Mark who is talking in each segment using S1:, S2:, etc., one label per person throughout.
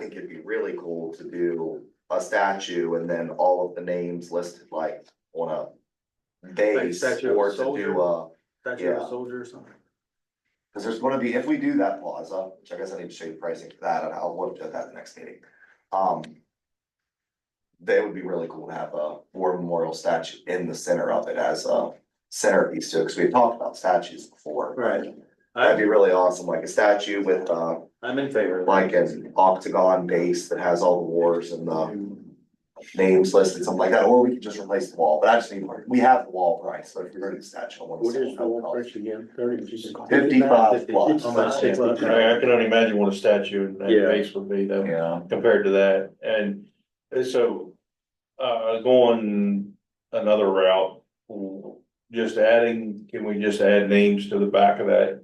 S1: think it'd be really cool to do a statue and then all of the names listed like on a base
S2: statue of a
S1: or to
S2: soldier.
S1: do a,
S2: That's your
S1: Yeah.
S2: soldier or something.
S1: cause there's gonna be, if we do that plaza, which I guess I need to show you pricing for that, and I'll look at that at the next meeting. Um. They would be really cool to have a war memorial statue in the center of it as a centerpiece too, cause we had talked about statues before.
S2: Right.
S1: That'd
S2: I,
S1: be really awesome, like a statue with uh
S2: I'm in favor of that.
S1: like an octagon base that has all the wars and uh, the names listed, something like that, or we could just replace the wall, but I just need, we have the wall price, so if you're gonna statue. I want to
S3: What is
S1: see
S3: the wall
S1: what it
S3: price again? Thirty?
S1: costs. Fifty-five plus.
S2: I'm at
S3: Fifty-five.
S4: I, I can only imagine what a statue in that
S2: Yeah.
S4: base would be though,
S1: Yeah,
S4: compared to that, and and so. Uh, going another route, just adding, can we just add names to the back of that?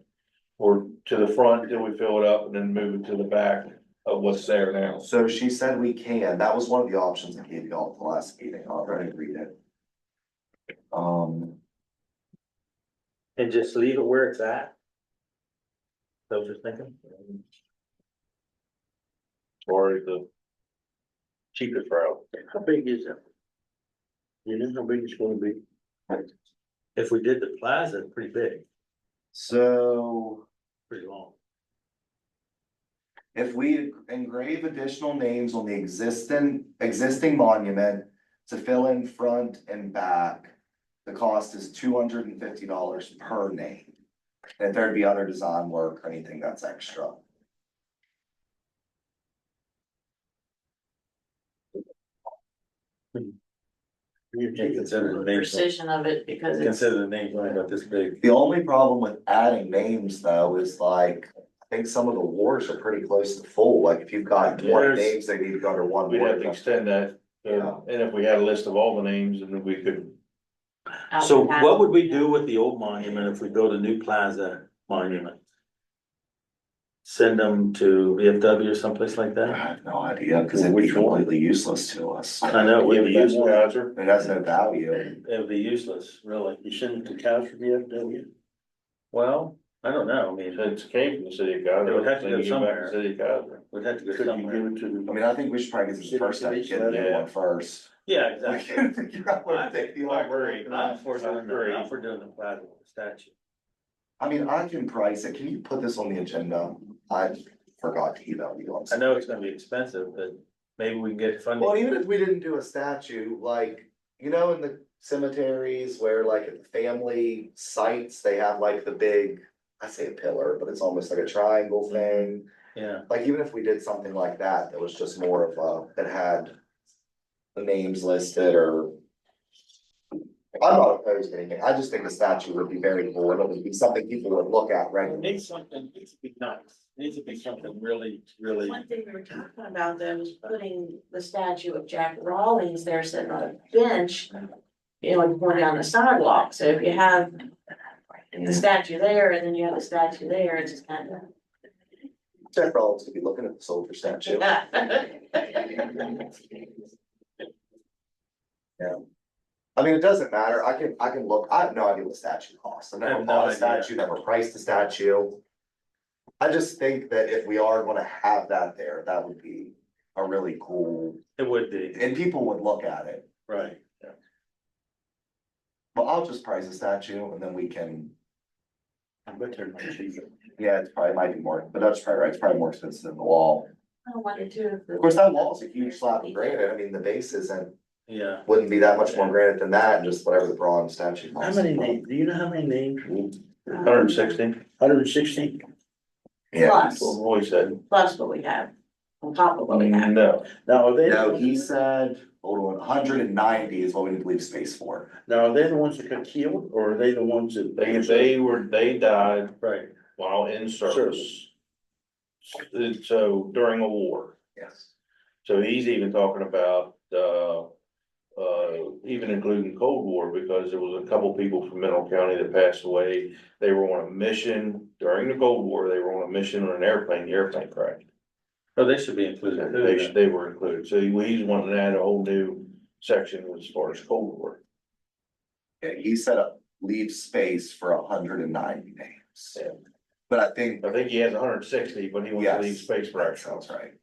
S4: Or to the front, till we fill it up and then move it to the back of what's there now?
S1: so she said we can, that was one of the options I gave y'all at the last meeting, I'll try to read it. Um,
S2: And just leave it where it's at? So just thinking,
S4: Or the cheapest route.
S3: How big is it? You know how big it's gonna be?
S2: if we did the plaza, it's pretty big,
S1: so.
S2: pretty long.
S1: If we engrave additional names on the existing, existing monument to fill in front and back. The cost is two hundred and fifty dollars per name. And if there'd be other design work or anything that's extra.
S3: You
S2: Yeah,
S3: take it
S2: consider
S3: to
S2: the
S3: a-
S2: name.
S5: precision of it because it's,
S2: Consider the name's only about this big.
S1: The only problem with adding names though is like, I think some of the wars are pretty close to full, like if you've got more
S4: There's-
S1: names, they need to go under one
S4: We'd have to
S1: word.
S4: extend that,
S1: Yeah.
S4: uh, and if we had a list of all the names, and then we could,
S5: out
S2: So
S5: in town.
S2: what would we do with the old monument if we build a new plaza monument? Send them to VFW or someplace like
S1: I
S2: that?
S1: have no idea, cause it'd be
S2: Which one?
S1: completely useless to us.
S2: I know, it would be
S4: Give it
S2: useless,
S4: to Roger.
S1: It has no value.
S2: it would be useless, really.
S3: You send it to Cal for the FW?
S2: Well, I don't know, I mean, it
S4: It's came from the city of Goslar.
S2: It would have to go
S4: They give it back to
S2: somewhere.
S4: the City of Goslar.
S2: would have to go
S3: Could you
S2: somewhere.
S3: give it to
S1: I
S3: the?
S1: mean, I think we should probably get some first step, get a new one first.
S2: Yeah,
S1: We
S2: exactly.
S1: can figure out where to take the
S4: I
S1: library.
S4: agree.
S2: I'm for doing,
S4: Agree.
S2: the- I'm for doing the plaza with the statue.
S1: I mean, I can price it, can you put this on the agenda? I forgot to email you. I'm
S2: I
S1: sorry.
S2: know it's gonna be expensive, but maybe we can get funding.
S1: Well, even if we didn't do a statue, like, you know, in the cemeteries where like at the family sites, they have like the big. I say a pillar, but it's almost like a triangle thing,
S2: Yeah,
S1: like even if we did something like that, that was just more of a, that had. The names listed or. I'm not opposed to anything, I just think the statue would be very cool, and it would be something people would look at
S3: It
S1: regularly.
S3: needs something, it needs to be nice, It needs to be something really, really.
S5: One thing we were talking about though was putting the statue of Jack Rawlings there sitting on a bench. You know, and going down the sidewalk, so if you have the statue there and then you have the statue there, it's just kind
S1: Jack Rollins could be looking at the soldier statue.
S5: of.
S1: I mean, it doesn't matter, I can, I can look, I have no idea what statue costs, I've
S2: I
S1: never
S2: have
S1: bought
S2: no
S1: a
S2: idea.
S1: statue, never priced a statue. I just think that if we are gonna have that there, that would be a really cool,
S2: it would be,
S1: and people would look at it.
S2: right.
S1: Well, I'll just price a statue and then we can,
S3: I bet they're not cheap.
S1: yeah, it's probably might be more, but that's probably right, it's probably more expensive than the wall.
S5: I wonder too.
S1: Of course, that wall's a huge slab of granite, I mean, the base isn't,
S2: Yeah.
S1: wouldn't be that much more granite than that, just whatever the bronze statue
S3: How
S1: costs.
S3: many names, do you know how many names?
S4: Hundred and sixty,
S3: Hundred and sixteen?
S1: Yeah.
S4: that's what Roy said.
S5: um, Plus what we have, on top of what we have.
S4: No,
S3: Now, are they?
S1: No, he said, hold on, hundred and ninety is what we need to leave space for.
S3: Now, are they the ones that got killed or are they the ones that?
S4: they, they were, they died
S3: Right.
S4: while in service.
S3: Service.
S4: And So during a war,
S1: Yes.
S4: so he's even talking about, uh, uh, even including Cold War, because there was a couple people from Mineral County that passed away. They were on a mission during the Cold War, they were on a mission on an airplane, the airplane crashed.
S2: Oh, they should be included. too,
S4: They,
S2: then.
S4: should- they were included, so he- he's wanting to add a whole new section as far as Cold War.
S1: Yeah, he said uh, leave space for hundred and ninety names.
S4: Yeah.
S1: But I think
S4: I think he has hundred and sixty, but he wants to leave
S1: Yes.
S4: space for
S1: that
S4: ourselves.
S1: sounds right.